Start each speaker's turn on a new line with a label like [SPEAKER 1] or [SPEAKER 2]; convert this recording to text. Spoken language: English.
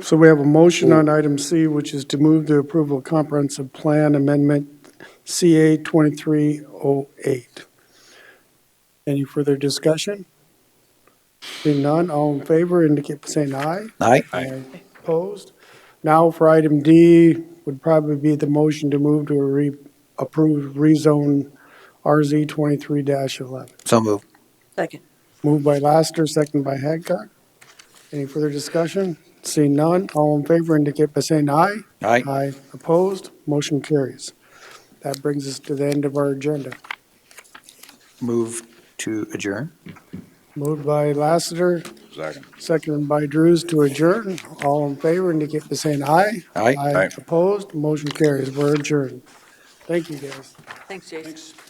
[SPEAKER 1] So we have a motion on item C, which is to move the approval of comprehensive plan amendment CA 2308. Any further discussion? Seeing none, all in favor indicate by saying aye.
[SPEAKER 2] Aye.
[SPEAKER 1] Opposed? Now for item D would probably be the motion to move to a re, approve rezone RZ 23-11.
[SPEAKER 2] So moved.
[SPEAKER 3] Second.
[SPEAKER 1] Moved by Laster, second by Hadcock. Any further discussion? Seeing none, all in favor indicate by saying aye.
[SPEAKER 2] Aye.
[SPEAKER 1] Aye. Opposed? Motion carries. That brings us to the end of our agenda.
[SPEAKER 2] Move to adjourn.
[SPEAKER 1] Moved by Lassiter,
[SPEAKER 4] Second.
[SPEAKER 1] seconded by Drews to adjourn. All in favor indicate by saying aye.
[SPEAKER 2] Aye.
[SPEAKER 1] Opposed? Motion carries. We're adjourned. Thank you, guys.
[SPEAKER 3] Thanks, Jason.